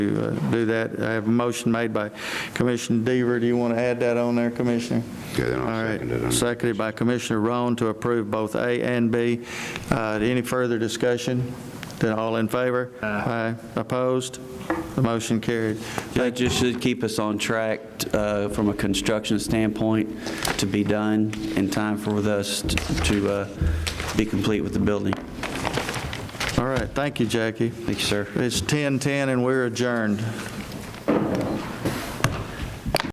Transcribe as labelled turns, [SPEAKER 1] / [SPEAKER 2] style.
[SPEAKER 1] to uh, do that. I have a motion made by Commissioner Deaver. Do you want to add that on there, Commissioner?
[SPEAKER 2] Yeah, then I'll second it
[SPEAKER 1] All
[SPEAKER 2] on-
[SPEAKER 1] right, seconded by Commissioner Roan to approve both A and B. Uh, Any further discussion? Then all in favor? Aye. Opposed? The motion carried.
[SPEAKER 3] That just should keep us on track uh, from a construction standpoint to be done in time for us t- to uh, be complete with the building.
[SPEAKER 1] All right, thank you, Jackie.
[SPEAKER 3] Thank you, sir.
[SPEAKER 1] It's 10:10 and we're adjourned.